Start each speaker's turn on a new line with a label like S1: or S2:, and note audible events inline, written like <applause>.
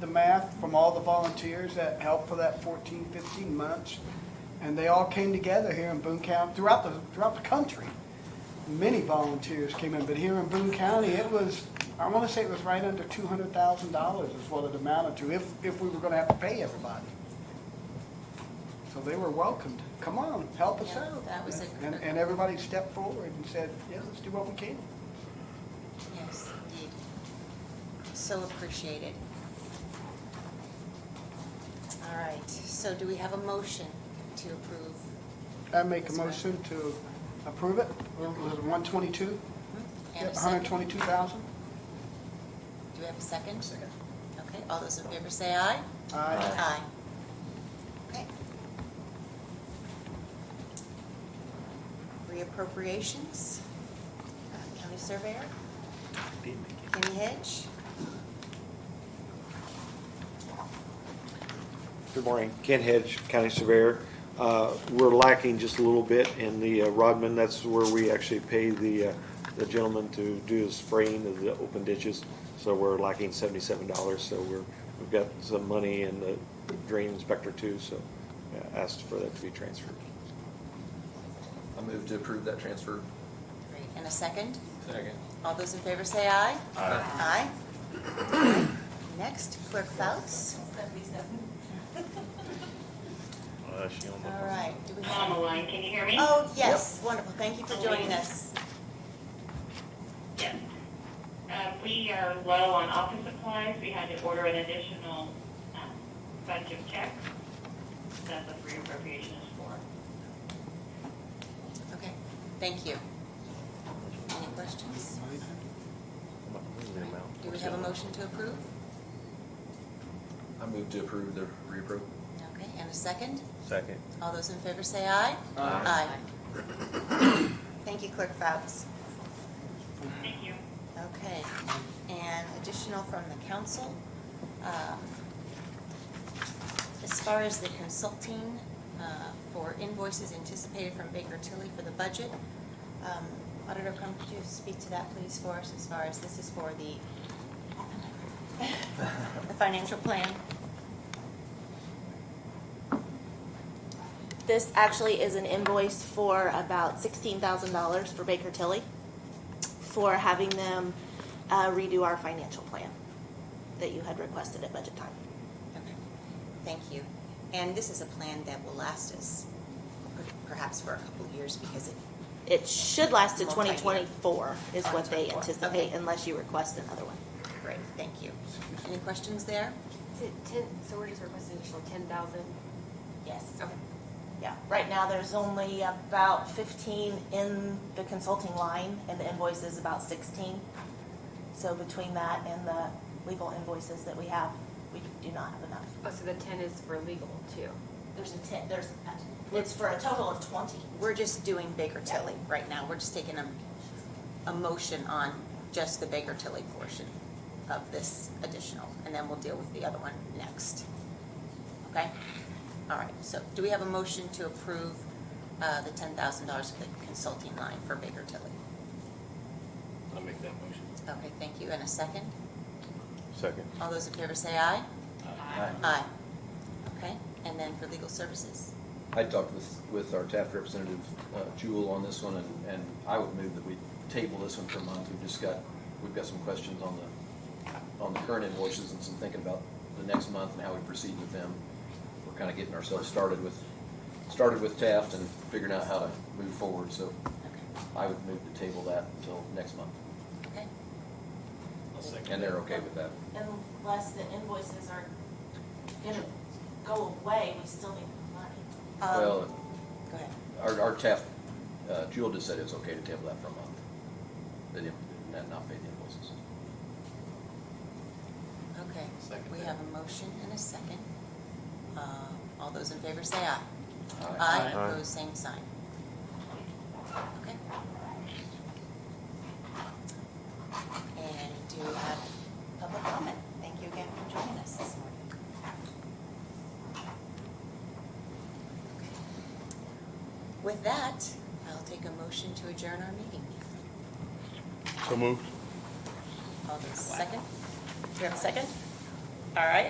S1: the math from all the volunteers that helped for that 14, 15 months, and they all came together here in Boone County, throughout the, throughout the country. Many volunteers came in, but here in Boone County, it was, I want to say it was right under $200,000 is what it amounted to, if, if we were going to have to pay everybody. So they were welcomed. Come on, help us
S2: Yeah,
S1: out.
S2: that was a-
S1: And, and everybody stepped forward and said, yeah, let's do what we can.
S2: Yes, indeed. So appreciated. All right, so do we have a motion to approve?
S1: I make a
S2: That's right.
S1: motion to approve it. Was it 122?
S2: Hmm? And a second?
S1: 122,000?
S2: Do we have a second? Second. Okay, all those in favor say aye?
S1: Aye.
S2: Aye. Okay. Reappropriations, Uh, county surveyor, Kenny Hedge.
S3: Good morning, Ken Hedge, County Surveyor. Uh, We're lacking just a little bit in the uh, Rodman, that's where we actually pay the uh, the gentleman to do the spraying of the open ditches. So we're lacking seventy-seven dollars, so we're, we've got some money in the drain inspector too, so uh, asked for that to be transferred.
S4: I move to approve that transfer.
S2: Great, and a second?
S4: Second.
S2: All those in favor say aye. <clears throat>
S4: Aye.
S2: Aye. Next, Clerk Fouts. All right, do we
S5: On
S2: have?
S5: the line, can you hear me?
S2: Oh, yes, wonderful, thank you for joining us.
S5: Yes. Uh, we are low on office supplies. We had to order an additional, um, bunch of checks. That's what reappropriation is for.
S2: Okay, thank you. Any questions? Do we have a motion to approve?
S4: I move to approve the reappro.
S2: Okay, and a second?
S3: Second.
S2: All those in favor say aye. Aye. <clears throat> Thank you, Clerk Fouts.
S5: Thank you.
S2: Okay, and additional from the council. um, As far as the consulting uh, for invoices anticipated from Baker Tilly for the budget, um, Auditor Crum, could you speak to that, please, for us, as far as this is for the, the financial plan?
S6: This actually is an invoice for about sixteen thousand dollars for Baker Tilly for having them uh, redo our financial plan that you had requested at budget time.
S2: Okay, Thank you. And this is a plan that will last us per- perhaps for a couple of years because it,
S6: It should last to twenty
S2: Multi-year.
S6: twenty-four is what they
S2: 2024,
S6: anticipate
S2: okay.
S6: unless you request another one.
S2: great, thank you. Any questions there?
S7: Is it ten, so we're just requesting additional ten thousand?
S6: Yes.
S2: Okay.
S6: Yeah, right now there's only about fifteen in the consulting line and the invoice is about sixteen. So between that and the legal invoices that we have, we do not have enough.
S7: Oh, so the ten is for legal too?
S6: There's a ten, there's, it's for a total of twenty.
S2: We're just doing Baker Tilly right now. We're just taking a, a motion on just the Baker Tilly portion of this additional, and then we'll deal with the other one next. Okay? All right, so do we have a motion to approve uh, the ten thousand dollars for the consulting line for Baker Tilly?
S8: I'll make that motion.
S2: Okay, thank you. And a second?
S3: Second.
S2: All those in favor say aye?
S4: Aye.
S2: Aye. Okay, and then for legal services?
S4: I talked with, with our Taft representative, uh, Jewel on this one, and, and I would move that we table this one for a month. We've just got, we've got some questions on the, on the current invoices and some thinking about the next month and how we proceed with them. We're kind of getting ourselves started with, started with Taft and figuring out how to move forward, so
S2: Okay.
S4: I would move to table that until next month.
S2: Okay,
S8: I'll
S4: And they're okay with that.
S6: Unless the invoices are gonna go away, we still need the money.
S2: Um,
S4: Well,
S2: go ahead.
S4: Our, our TAF, uh, Jewel just said it's okay to table that for a month. They didn't, not- not pay the invoices.
S2: Okay,
S8: Second
S2: we
S8: that.
S2: have a motion and a second. Uh, All those in favor say aye.
S4: Aye.
S2: Aye,
S3: Aye.
S2: opposed, same sign. Okay. And do you have public comment? Thank you again for joining us this morning. Okay. With that, I'll take a motion to adjourn our meeting.
S8: So moved.
S2: All those, second? Do you have a second? All right,